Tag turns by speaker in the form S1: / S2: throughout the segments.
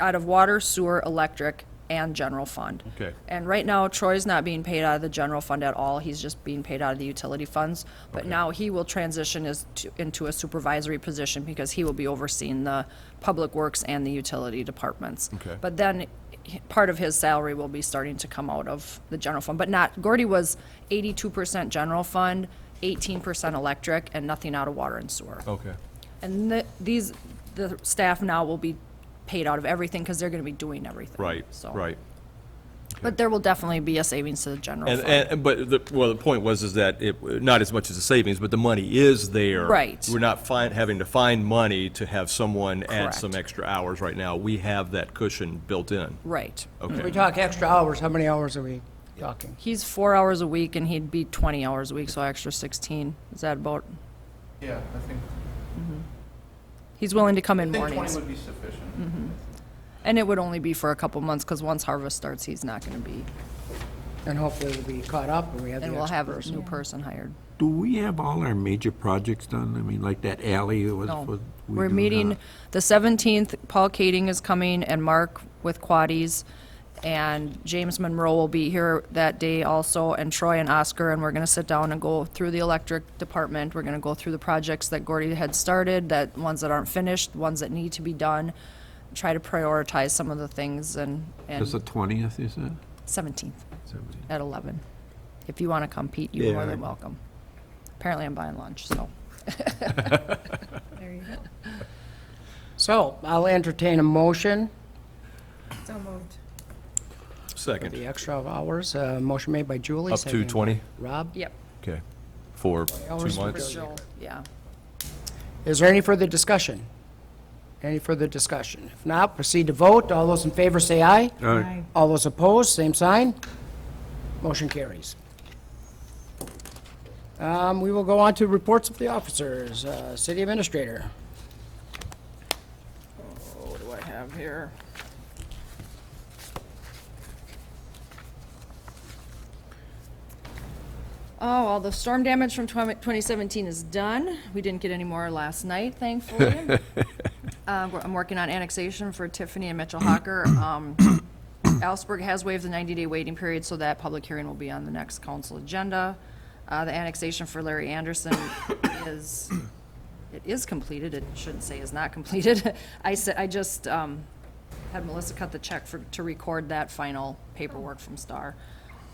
S1: out of water, sewer, electric, and general fund.
S2: Okay.
S1: And right now Troy's not being paid out of the general fund at all. He's just being paid out of the utility funds. But now he will transition as to, into a supervisory position because he will be overseeing the public works and the utility departments.
S2: Okay.
S1: But then he- part of his salary will be starting to come out of the general fund, but not, Gordy was eighty-two percent general fund, eighteen percent electric, and nothing out of water and sewer.
S2: Okay.
S1: And the, these, the staff now will be paid out of everything because they're going to be doing everything.
S2: Right,
S1: So-
S2: right.
S1: But there will definitely be a savings to the general
S2: And,
S1: fund.
S2: and, but the, well, the point was is that it, not as much as the savings, but the money is there.
S1: Right.
S2: We're not find, having to find money to have someone add
S1: Correct.
S2: some extra hours right now. We have that cushion built in.
S1: Right.
S2: Okay.
S3: If we talk extra hours, how many hours are we talking?
S1: He's four hours a week and he'd be 20 hours a week, so extra 16. Is that about,
S4: Yeah, I think,
S1: he's willing to come in
S4: I think 20
S1: mornings.
S4: would be sufficient.
S1: And it would only be for a couple months because once harvest starts, he's not going to be,
S3: And hopefully we'll be caught up and we have the
S1: and we'll
S3: extra
S1: have a new
S3: person.
S1: person hired.
S5: Do we have all our major projects done? I mean, like that alley was.
S1: No.
S5: was- we
S1: We're
S5: do
S1: meeting
S5: not.
S1: the 17th, Paul Kading is coming and Mark with Quaddies. And James Monroe will be here that day also, and Troy and Oscar, and we're gonna sit down and go through the electric department. We're gonna go through the projects that Gordy had started, that, ones that aren't finished, ones that need to be done. Try to prioritize some of the things and,
S5: It's the
S1: and
S5: twentieth, is it?
S1: 17th
S5: Seventeen.
S1: at 11. If you wanna come, Pete, you're more
S5: Yeah.
S1: than welcome. Apparently I'm buying lunch, so.
S3: So I'll entertain a motion for
S2: Second,
S3: the extra hours. Uh, Motion made by Julie.
S2: up to
S3: seconded by
S2: 20?
S3: Rob,
S1: Yep.
S2: Okay. For
S3: hours
S2: two
S3: per
S2: months?
S3: Joel.
S1: Yeah.
S3: is there any further discussion? Any further discussion? If not, proceed to vote. All those in favor say aye.
S5: Aye.
S3: All those opposed, same sign. Motion carries. Um, We will go on to reports of the officers. Uh, City Administrator.
S1: What do I have here? Oh, well, the storm damage from 20 2017 is done. We didn't get any more last night, thankfully. Uh, we're- I'm working on annexation for Tiffany and Mitchell Hawker. Um, Alsberg has waived the 90-day waiting period, so that public hearing will be on the next council agenda. Uh, The annexation for Larry Anderson is it is completed, it shouldn't say is not completed. I said, I just, um, had Melissa cut the check for, to record that final paperwork from Star.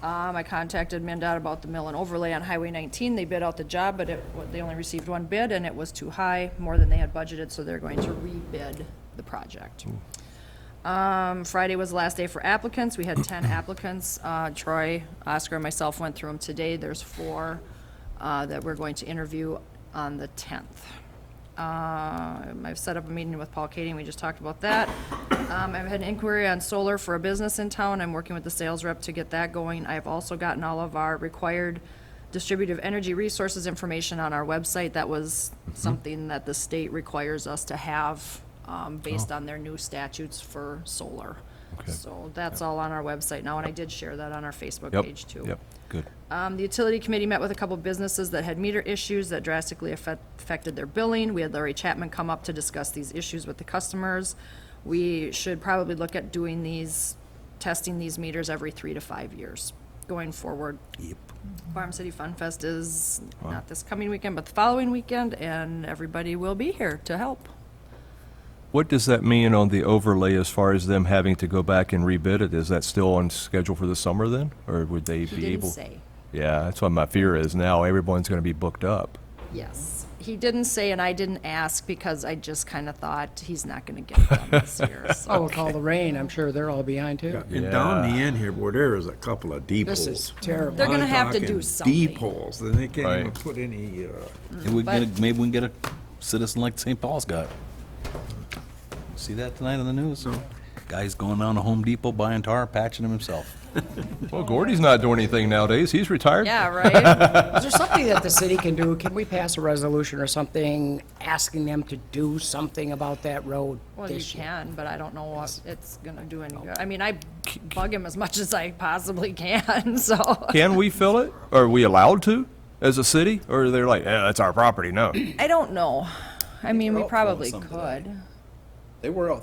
S1: Um, I contacted MinDOT about the mill and overlay on Highway nineteen, they bid out the job, but it, they only received one bid, and it was too high, more than they had budgeted, so they're going to rebid the project. Um, Friday was the last day for applicants. We had ten applicants. Uh, Troy, Oscar, and myself went through them today. There's four, uh, that we're going to interview on the tenth. Um, I've set up a meeting with Paul Kading. We just talked about that. Um, I've had an inquiry on solar for a business in town. I'm working with the sales rep to get that going. I've also gotten all of our required distributive energy resources information on our website. That was
S2: Mm-hmm.
S1: something that the state requires us to have, um,
S2: Oh.
S1: based on their new statutes for solar. So that's all on our website now, and I did share that on our Facebook
S2: Yep,
S1: page too.
S2: Yep, good.
S1: Um, the utility committee met with a couple businesses that had meter issues that drastically affect, affected their billing. We had Larry Chapman come up to discuss these issues with the customers. We should probably look at doing these, testing these meters every three to five years going forward. Yep. Farm City Fun Fest is not this coming weekend, but the following weekend, and everybody will be here to help.
S2: What does that mean on the overlay as far as them having to go back and rebid it? Is that still on schedule for the summer then? Or would they
S1: He
S2: be
S1: didn't
S2: able?
S1: say.
S2: Yeah, that's what my fear is now. Everyone's going to be booked up.
S1: Yes. He didn't say, and I didn't ask because I just kind of thought he's not going to get it done this year, so.
S3: Oh, with all the rain, I'm sure they're all behind too.
S5: And down the end here, where there is a couple of deep holes.
S3: This is terrible.
S1: They're gonna
S5: I'm
S1: have to do
S5: talking
S1: something.
S5: Deep holes, then they can't even
S2: Right.
S5: put any, uh,
S6: And we can get a, maybe we can get a citizen like St. Paul's got. See that tonight on the news? Guy's going down to Home Depot buying tar, patching him himself.
S2: Well, Gordy's not doing anything nowadays. He's retired.
S1: Yeah, right?
S3: Is there something that the city can do? Can we pass a resolution or something asking them to do something about that road
S1: Well, you
S3: this year?
S1: can, but I don't know what it's gonna do any good. I mean, I bug him as much as I possibly can, so.
S2: Can we fill it? Are we allowed to as a city? Or they're like, yeah, that's our property, no?
S1: I don't know. I mean, we probably
S6: something
S1: could.
S7: They were out